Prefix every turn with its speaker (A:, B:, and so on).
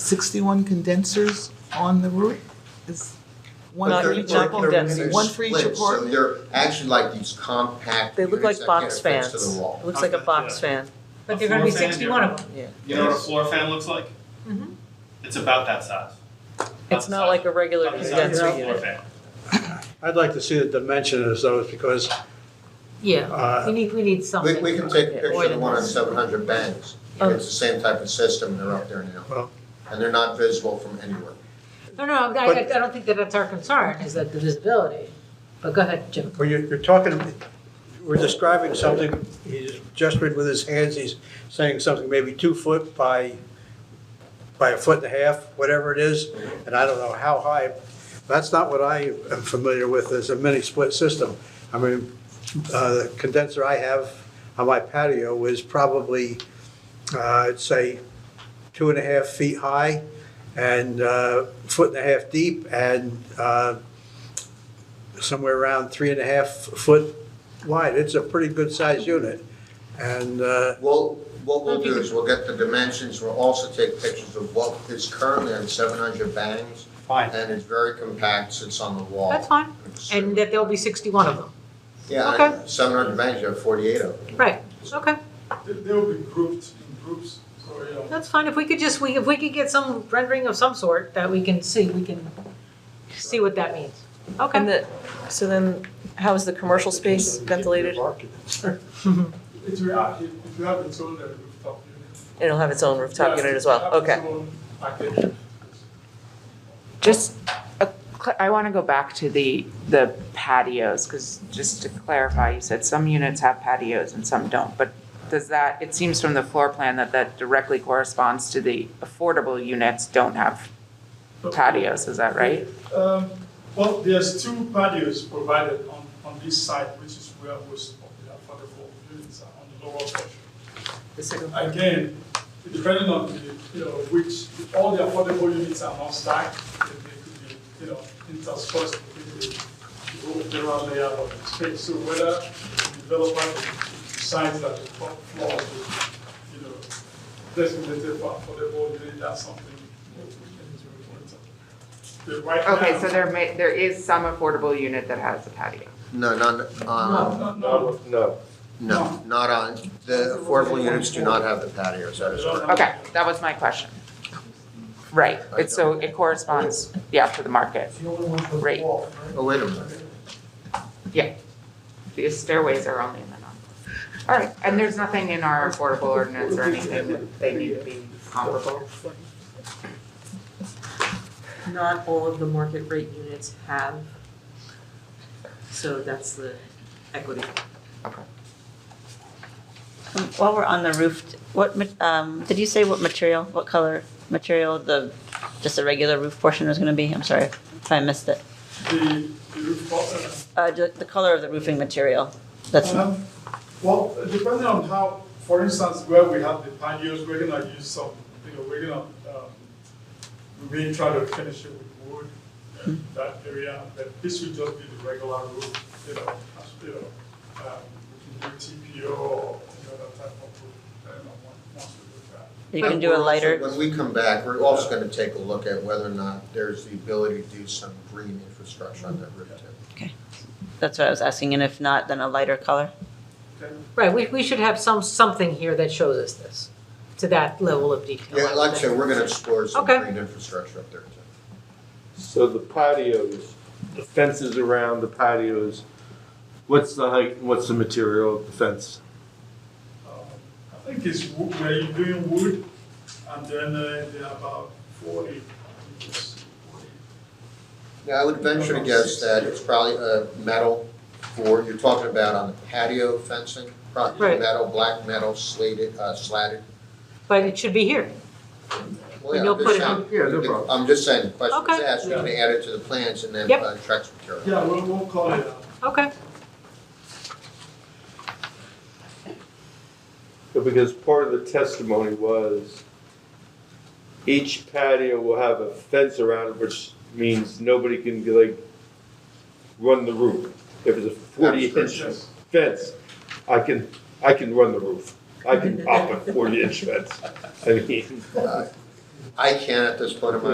A: 61 condensers on the roof? Is one
B: Not
A: for
B: each- not
A: each-
B: condensing.
A: One for each
C: Split, so
A: apartment?
C: they're actually like these compact
B: They look like
C: units that get
B: box
C: affixed
B: fans.
C: to the wall.
B: It looks like a box fan.
D: But they're gonna be
E: A floor fan,
D: sixty-one of them.
E: You know what a floor fan looks like?
D: Mhm.
E: It's about that size.
B: It's not like a regular
E: About the size
B: condenser
E: of a floor
B: unit.
E: fan.
F: I'd like to see the dimension of those because,
D: Yeah, we
F: uh,
D: need, we need
C: We,
D: something.
C: we can take a
B: Yeah,
C: picture
B: more
C: of the
B: than
C: one on
B: that.
C: seven hundred banks.
B: Oh.
C: It's the same type of system, they're up there now.
F: Well-
C: And they're not visible from anywhere.
D: No, no, I, I I don't think that that's our concern, is that the visibility, but go ahead, Jim.
F: when you're, you're talking, we're describing something, he's gesturing with his hands, he's saying something maybe two foot by, by a foot and a half, whatever it is, and I don't know how high. That's not what I am familiar with as a mini split system. I mean, uh, the condenser I have on my patio is probably, uh, I'd say, two and a half feet high and uh, foot and a half deep and uh, somewhere around three and a half foot wide. It's a pretty good sized unit. And uh,
C: Well, what we'll do is we'll get the dimensions, we'll also take pictures of what is currently on seven hundred bangs.
F: Fine.
C: And it's very compact, sits on the wall.
D: That's fine, and that there'll be sixty-one of them,
C: Yeah,
D: okay.
C: seven hundred bangs, you have forty-eight of them.
D: right, okay,
G: They- They'll be grouped in groups, so, you know.
D: that's fine, if we could just, we, if we could get some rendering of some sort that we can see, we can see what that means,
B: And
D: okay.
B: the, so then, how is the commercial space ventilated?
G: It will have, it will have its own uh, rooftop unit.
B: It'll have its own rooftop
G: Yeah,
B: unit as
G: it
B: well,
G: will have
B: okay.
G: its own package.
H: Just, a cl- I want to go back to the, the patios, because just to clarify, you said some units have patios and some don't. But does that, it seems from the floor plan that that directly corresponds to the affordable units don't have patios, is that right?
G: Um, Well, there's two patios provided on, on this side, which is where most of the affordable units are, on the lower portion. Again, depending on the, you know, which, all the affordable units are not stacked, and they could be, you know, interspersed within the the general layout of the space. So whether the developer decides that the top floor will, you know, designated for affordable unit, that's something we can do. But right now.
H: Okay, so there may, there is some affordable unit that has a patio.
C: No, not, um,
G: No, no, no.
C: no, not on, the affordable units do not have the patios, that is correct.
H: Okay, that was my question. Right, it's so it corresponds, yeah, to the market. Right,
C: Oh, wait a minute.
H: yeah. The stairways are only in the non. All right, and there's nothing in our affordable ordinance or anything that they need to be comparable?
I: not all of the market rate units have. So that's the equity.
J: Um, While we're on the roof, what, ma- um, did you say what material, what color material the, just the regular roof portion was gonna be? I'm sorry if I missed it.
G: The, the rooftop, uh,
J: Uh, ju- the color of the roofing material, that's,
G: Um, Well, depending on how, for instance, where we have the patios, we're gonna use some, you know, we're gonna, um, we may try to finish it with wood, uh, that area, but this would just be the regular roof, you know, as- you know, um, we can do TPO or, you know, that type of roof, depending on what we want to look at.
J: you can do a lighter,
C: When we come back, we're also gonna take a look at whether or not there's the ability to do some green infrastructure on that roof too.
J: that's what I was asking, and if not, then a lighter color?
D: Right, we, we should have some, something here that shows us this, to that level of detail.
C: Yeah, like I said, we're gonna explore some
D: Okay.
C: green infrastructure up there too.
K: So the patios, the fences around the patios, what's the height, and what's the material of the fence?
G: Um, I think it's, wo- where you're doing wood, and then uh, they're about forty, I think it's forty.
C: Yeah, I would venture to guess that it's probably a metal for, you're talking about on the patio fencing, probably
D: Right.
C: metal, black metal slated, uh, slatted.
D: But it should be here,
C: Well,
D: And
C: yeah,
D: you'll
C: I'm just
D: put it
C: saying-
D: on-
K: Yeah, no problem.
C: I'm just saying, the question's
D: Okay.
C: asked, we can add it to the plans and then,
D: Yep.
C: uh, track some material.
G: Yeah, we'll, we'll call it uh, out.
D: okay.
K: Because part of the testimony was each patio will have a fence around it, which means nobody can like run the roof. If it's a forty inch
G: Yes.
K: fence, I can, I can run the roof. I can pop a forty inch fence. I mean,
C: I can't at this point in my